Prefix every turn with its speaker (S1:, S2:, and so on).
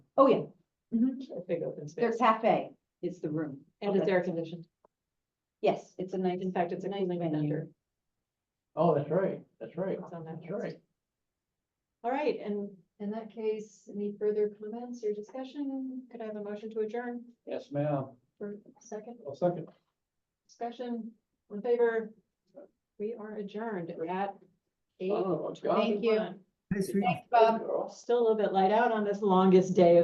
S1: Oh, yeah,
S2: a big open
S1: their
S2: space.
S1: cafe is the room.
S2: And it's
S1: Mm-hmm. Okay.
S2: air conditioned.
S1: Yes, it's a nice.
S2: In fact, it's a
S1: nice
S2: cooling
S1: venue.
S2: vendor.
S3: Oh, that's right, that's right,
S2: It's on that
S3: that's
S2: list.
S3: right.
S2: All right, and in that case, any further comments or discussion? Could I have a motion to adjourn
S3: Yes, ma'am.
S2: for a second
S3: I'll second.
S2: discussion? All In favor? We are adjourned at eight.
S3: Oh, my God.
S1: Thank you.
S2: fifty-one.
S4: Nice reading.
S1: Thanks, Bob.
S3: Girl.
S2: Still a little bit light out on this longest day of